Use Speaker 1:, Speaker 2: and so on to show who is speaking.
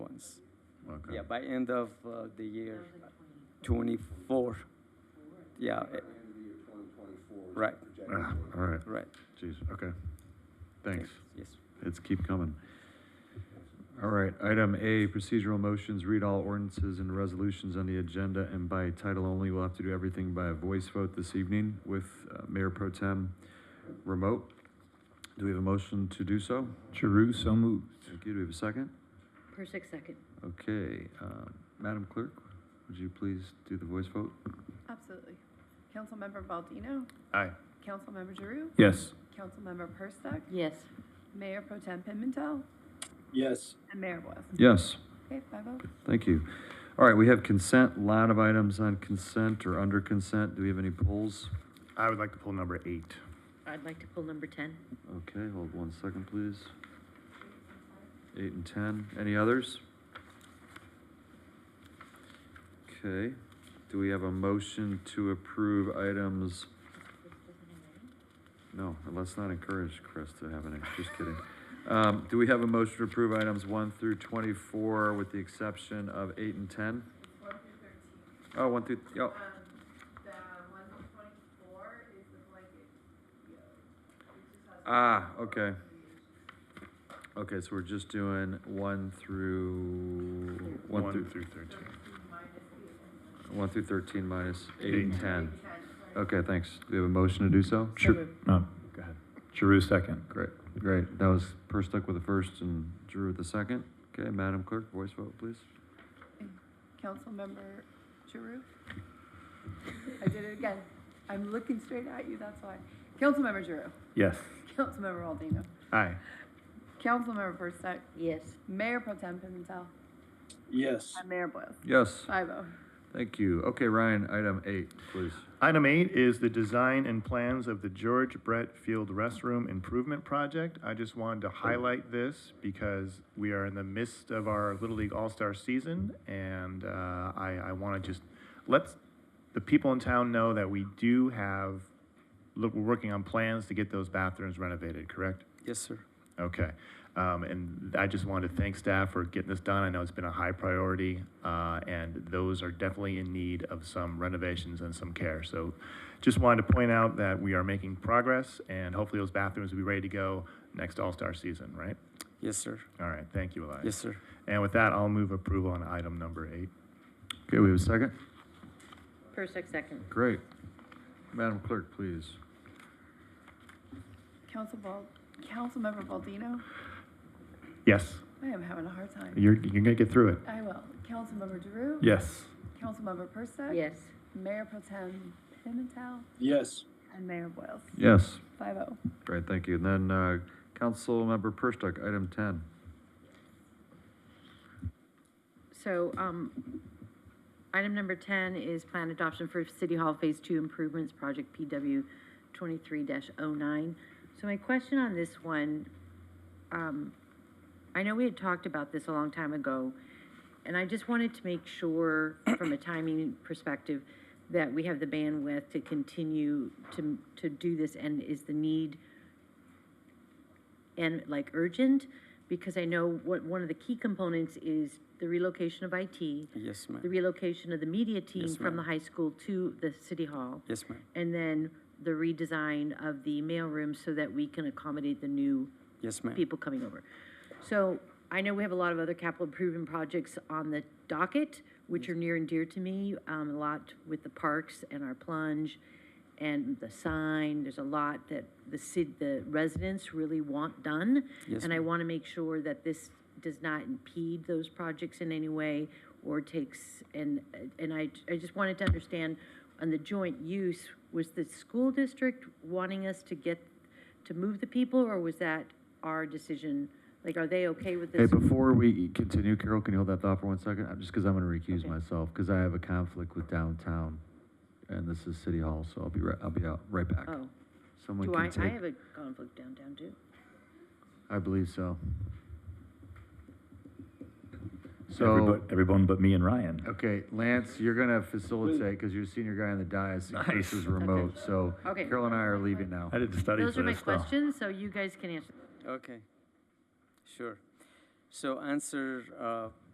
Speaker 1: Yeah, by end of uh, the year twenty-four. Yeah, eh,
Speaker 2: End of the year 2024 is
Speaker 1: Right.
Speaker 2: projected.
Speaker 3: Ah, All right,
Speaker 1: right.
Speaker 3: jeez, okay. Thanks.
Speaker 1: Yes.
Speaker 3: It's keep coming. All right, item A, procedural motions, read all ordinances and resolutions on the agenda and by title only. We'll have to do everything by a voice vote this evening with uh, Mayor Pro Tem remote. Do we have a motion to do so?
Speaker 4: Giroux, so moved.
Speaker 3: Thank you. Do we have a second?
Speaker 5: Persick, second.
Speaker 3: Okay, um, Madam Clerk, would you please do the voice vote?
Speaker 6: Absolutely. Councilmember Baldino,
Speaker 3: Aye.
Speaker 6: Councilmember Giroux,
Speaker 4: Yes.
Speaker 6: Councilmember Perstuck,
Speaker 5: Yes.
Speaker 6: Mayor Pro Tem Pimentel,
Speaker 1: Yes.
Speaker 6: and Mayor Boyle.
Speaker 3: Yes.
Speaker 6: Okay, five oh.
Speaker 3: Thank you. All right, we have consent, lot of items on consent or under consent. Do we have any polls?
Speaker 7: I would like to pull number eight.
Speaker 5: I'd like to pull number ten.
Speaker 3: Okay, hold one second, please. Eight and ten, any others? Okay, do we have a motion to approve items? No, let's not encourage Chris to have any, just kidding. Um, do we have a motion to approve items one through twenty-four with the exception of eight and ten? Oh, one through, oh,
Speaker 6: Um, The one twenty-four is the blanket.
Speaker 3: ah, okay. Okay, so we're just doing one through, one through.
Speaker 7: thirteen.
Speaker 3: One through thirteen minus eight and ten. Okay, thanks. Do we have a motion to do so?
Speaker 4: Sure. Oh, No,
Speaker 3: Go ahead.
Speaker 4: Giroux, second.
Speaker 3: Great, great. That was Perstuck with the first and Drew with the second. Okay, Madam Clerk, voice vote, please.
Speaker 6: Councilmember Giroux? I did it again. I'm looking straight at you, that's why. Councilmember Giroux,
Speaker 4: Yes.
Speaker 6: Councilmember Baldino,
Speaker 4: Aye.
Speaker 6: Councilmember Perstuck,
Speaker 5: Yes.
Speaker 6: Mayor Pro Tem Pimentel,
Speaker 1: Yes.
Speaker 6: and Mayor Boyle.
Speaker 3: Yes,
Speaker 6: Five oh.
Speaker 3: thank you. Okay, Ryan, item eight, please.
Speaker 7: Item eight is the design and plans of the George Brett Field Restroom Improvement Project. I just wanted to highlight this because we are in the midst of our Little League All-Star season, and uh, I, I want to just let the people in town know that we do have, look, we're working on plans to get those bathrooms renovated, correct?
Speaker 1: Yes, sir.
Speaker 7: Okay. Um, and I just wanted to thank staff for getting this done. I know it's been a high priority, uh, and those are definitely in need of some renovations and some care. So just wanted to point out that we are making progress, and hopefully those bathrooms will be ready to go next All-Star season, right?
Speaker 1: Yes, sir.
Speaker 7: All right, thank you, Elias.
Speaker 1: Yes, sir.
Speaker 7: And with that, I'll move approval on item number eight.
Speaker 3: Okay, we have a second?
Speaker 5: Persick, second.
Speaker 3: Great. Madam Clerk, please.
Speaker 6: Council Bal, Councilmember Baldino,
Speaker 7: Yes,
Speaker 6: I am having a hard time.
Speaker 7: you're, you're gonna get through it.
Speaker 5: Uh,
Speaker 6: I will. Councilmember Drew?
Speaker 4: Yes.
Speaker 6: Councilmember Persa?
Speaker 5: Yes.
Speaker 6: Mayor Pro Tem Pimentel?
Speaker 1: Yes.
Speaker 6: And Mayor Boyles?
Speaker 3: Yes,
Speaker 6: Five oh.
Speaker 3: great, thank you. And then, uh, Councilmember Perstuck, item ten.
Speaker 5: So, um, item number ten is plan adoption for City Hall Phase Two Improvements Project PW twenty-three 9 So my question on this one, um, I know we had talked about this a long time ago, and I just wanted to make sure, from a timing perspective, that we have the bandwidth to continue to, to do this, and is the need and like urgent? Because I know what, one of the key components is the relocation of IT,
Speaker 1: Yes,
Speaker 5: the
Speaker 1: ma'am.
Speaker 5: relocation of the media team
Speaker 1: Yes,
Speaker 5: from the
Speaker 1: ma'am.
Speaker 5: high school to the city hall,
Speaker 1: Yes, ma'am.
Speaker 5: and then the redesign of the mailroom so that we can accommodate the new
Speaker 1: Yes, ma'am.
Speaker 5: people coming over. So I know we have a lot of other capital improvement projects on the docket, which are near and dear to me, um, a lot with the parks and our plunge and the sign. There's a lot that the city, the residents really want done.
Speaker 1: Yes,
Speaker 5: And I
Speaker 1: ma'am.
Speaker 5: want to make sure that this does not impede those projects in any way or takes, and, and I, I just wanted to understand on the joint use, was the school district wanting us to get, to move the people, or was that our decision? Like, are they okay with
Speaker 3: Hey,
Speaker 5: this?
Speaker 3: before we continue, Carol, can you hold that thought for one second? I'm- Just because I'm going to recuse
Speaker 5: Okay.
Speaker 3: myself, because I have a conflict with downtown, and this is City Hall, so I'll be right, I'll be out, right back.
Speaker 5: Oh,
Speaker 3: Someone
Speaker 5: do I,
Speaker 3: can
Speaker 5: I
Speaker 3: take,
Speaker 5: have a conflict downtown too.
Speaker 3: I believe so.
Speaker 4: Everyone,
Speaker 3: So,
Speaker 4: everyone but me and Ryan.
Speaker 3: okay, Lance, you're going to facilitate, because you're senior guy on the dais, and Chris
Speaker 4: Nice.
Speaker 3: is remote, so
Speaker 5: Okay.
Speaker 3: Carol and I are leaving now.
Speaker 4: I didn't study for this
Speaker 5: Those are my
Speaker 4: though.
Speaker 5: questions, so you guys can answer.
Speaker 1: Okay. Sure. So answer uh,